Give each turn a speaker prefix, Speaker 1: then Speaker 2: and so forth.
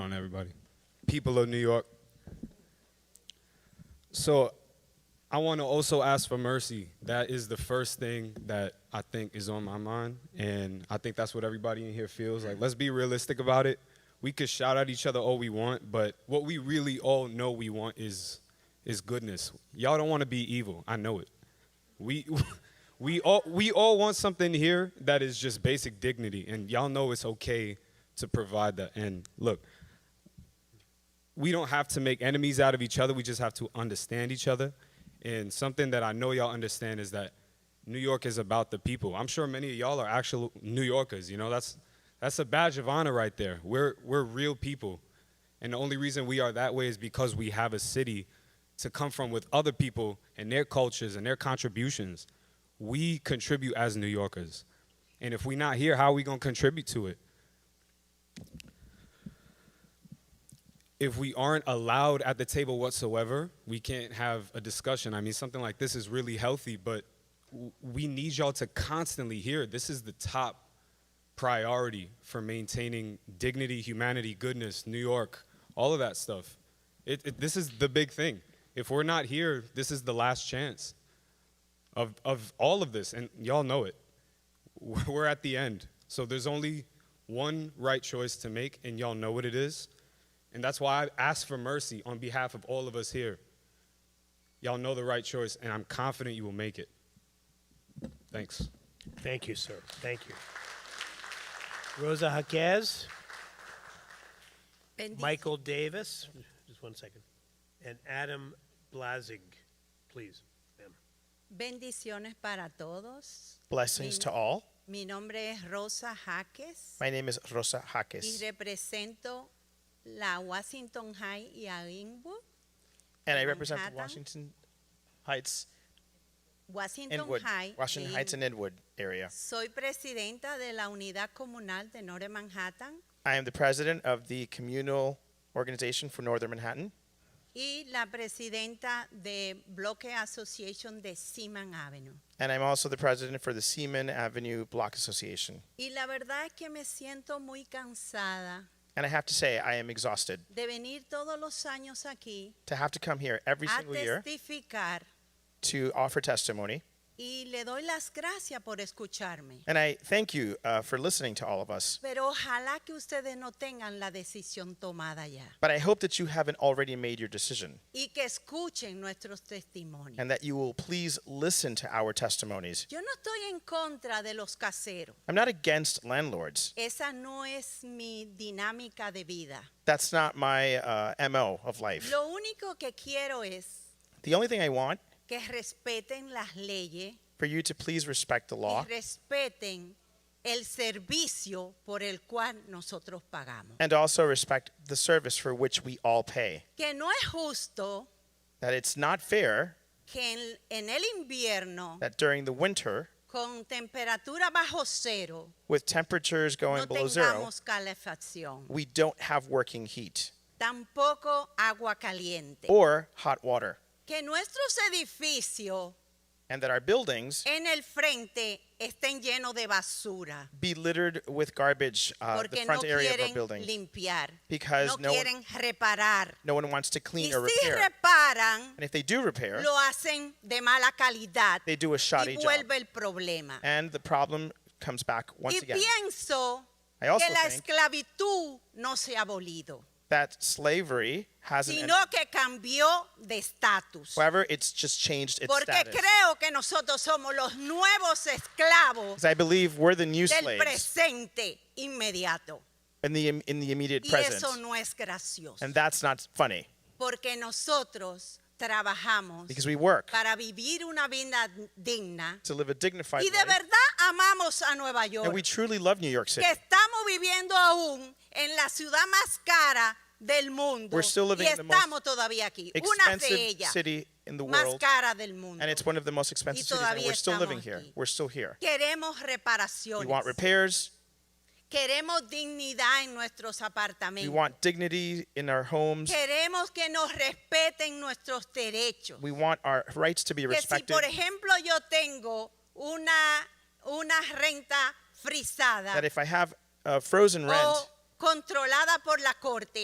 Speaker 1: people of New York. So I want to also ask for mercy. That is the first thing that I think is on my mind. And I think that's what everybody in here feels like. Let's be realistic about it. We could shout at each other all we want, but what we really all know we want is is goodness. Y'all don't want to be evil. I know it. We we all we all want something here that is just basic dignity and y'all know it's okay to provide that. And look, we don't have to make enemies out of each other. We just have to understand each other. And something that I know y'all understand is that New York is about the people. I'm sure many of y'all are actual New Yorkers. You know, that's that's a badge of honor right there. We're we're real people. And the only reason we are that way is because we have a city to come from with other people and their cultures and their contributions. We contribute as New Yorkers. And if we're not here, how are we going to contribute to it? if we aren't allowed at the table whatsoever, we can't have a discussion. I mean, something like this is really healthy, but w- we need y'all to constantly hear this is the top priority for maintaining dignity, humanity, goodness, New York, all of that stuff. It, it, this is the big thing. If we're not here, this is the last chance of, of all of this, and y'all know it. We're at the end. So there's only one right choice to make, and y'all know what it is. And that's why I ask for mercy on behalf of all of us here. Y'all know the right choice, and I'm confident you will make it. Thanks.
Speaker 2: Thank you, sir. Thank you. Rosa Jaquez,
Speaker 3: Bendice.
Speaker 2: Michael Davis, just one second, and Adam Blazig, please. ma'am.
Speaker 3: Bendiciones para todos.
Speaker 4: Blessings to all.
Speaker 3: Mi nombre es Rosa Jaques
Speaker 4: My name is Rosa
Speaker 3: y
Speaker 4: Jaques,
Speaker 3: represento la Washington High y a Inwood.
Speaker 4: and I represent
Speaker 3: Manhattan.
Speaker 4: Washington Heights,
Speaker 3: Washington
Speaker 4: Inwood,
Speaker 3: High.
Speaker 4: Washington
Speaker 3: e
Speaker 4: Heights and
Speaker 3: Inwood.
Speaker 4: Inwood area.
Speaker 3: Soy presidenta de la Unidad Comunal de Norte Manhattan
Speaker 4: I am the president of the communal organization for Northern Manhattan,
Speaker 3: y la presidenta de Bloque Association de Seaman Avenue.
Speaker 4: and I'm also the president for the Seaman Avenue Block Association.
Speaker 3: Y la verdad es que me siento muy cansada
Speaker 4: And I have to say, I am exhausted
Speaker 3: de venir todos los años aquí
Speaker 4: to have to come here every
Speaker 3: a
Speaker 4: single year
Speaker 3: testificar
Speaker 4: to offer testimony.
Speaker 3: Y le doy las gracias por escucharme.
Speaker 4: And I thank you uh, for listening to all of us.
Speaker 3: Pero ojalá que ustedes no tengan la decisión tomada ya
Speaker 4: But I hope that you haven't already made your decision
Speaker 3: y que escuchen nuestros testimonios.
Speaker 4: and that you will please listen to our testimonies.
Speaker 3: Yo no estoy en contra de los caseros.
Speaker 4: I'm not against landlords.
Speaker 3: Esa no es mi dinámica de vida.
Speaker 4: That's not my uh, MO of life.
Speaker 3: Lo único que quiero es
Speaker 4: The only thing I want
Speaker 3: que respeten las leyes
Speaker 4: for you to please respect the
Speaker 3: y
Speaker 4: law
Speaker 3: respeten el servicio por el cual nosotros pagamos.
Speaker 4: and also respect the service for which we all pay.
Speaker 3: Que no es justo
Speaker 4: That it's not fair
Speaker 3: que en- en el invierno
Speaker 4: that during the winter,
Speaker 3: con temperatura bajo cero
Speaker 4: with temperatures going
Speaker 3: no
Speaker 4: below zero,
Speaker 3: tengamos calefacción,
Speaker 4: we don't have working heat
Speaker 3: tampoco agua caliente.
Speaker 4: or hot water,
Speaker 3: Que nuestros edificios
Speaker 4: and that our buildings
Speaker 3: en el frente estén llenos de basura
Speaker 4: be littered with garbage, uh, the
Speaker 3: porque no
Speaker 4: front area of our
Speaker 3: quieren
Speaker 4: building,
Speaker 3: limpiar,
Speaker 4: because
Speaker 3: no,
Speaker 4: no one-
Speaker 3: quieren reparar.
Speaker 4: no one wants to
Speaker 3: Y
Speaker 4: clean or
Speaker 3: si
Speaker 4: repair.
Speaker 3: reparan,
Speaker 4: And if they do repair,
Speaker 3: lo hacen de mala calidad
Speaker 4: they do a
Speaker 3: y
Speaker 4: shoddy job.
Speaker 3: vuelve el problema.
Speaker 4: And the problem comes back
Speaker 3: Y
Speaker 4: once again
Speaker 3: pienso
Speaker 4: I also
Speaker 3: que la
Speaker 4: think-
Speaker 3: esclavitud no se ha abolido.
Speaker 4: that slavery hasn't
Speaker 3: sino
Speaker 4: ended.
Speaker 3: que cambió de estatus.
Speaker 4: However, it's just changed its
Speaker 3: Porque
Speaker 4: status.
Speaker 3: creo que nosotros somos los nuevos esclavos
Speaker 4: Because I believe we're the new
Speaker 3: del
Speaker 4: slaves
Speaker 3: presente inmediato.
Speaker 4: in the, im- in the immediate
Speaker 3: Y eso
Speaker 4: present.
Speaker 3: no es gracioso.
Speaker 4: And that's not funny
Speaker 3: Porque nosotros trabajamos
Speaker 4: because we work
Speaker 3: para vivir una vida digna
Speaker 4: to live a dignified
Speaker 3: y de
Speaker 4: life.
Speaker 3: verdad amamos a Nueva
Speaker 4: And we
Speaker 3: York,
Speaker 4: truly love New York City.
Speaker 3: que estamos viviendo aún en la ciudad más cara del mundo.
Speaker 4: We're still
Speaker 3: Y
Speaker 4: living in the most
Speaker 3: estamos todavía aquí, una de
Speaker 4: Expensive
Speaker 3: ellas
Speaker 4: city in the
Speaker 3: más
Speaker 4: world.
Speaker 3: cara del mundo.
Speaker 4: And it's one of the most expensive cities. And
Speaker 3: todavía
Speaker 4: we're still
Speaker 3: estamos
Speaker 4: living here.
Speaker 3: aquí.
Speaker 4: We're still here.
Speaker 3: Queremos
Speaker 4: We
Speaker 3: reparaciones.
Speaker 4: want repairs.
Speaker 3: Queremos dignidad en nuestros
Speaker 4: We
Speaker 3: apartamentos.
Speaker 4: want dignity in our homes.
Speaker 3: Queremos que nos respeten nuestros derechos.
Speaker 4: We want our rights to be
Speaker 3: Que si,
Speaker 4: respected.
Speaker 3: por ejemplo, yo tengo una, una renta frisada
Speaker 4: That if I have uh, frozen rent,
Speaker 3: o controlada por la corte,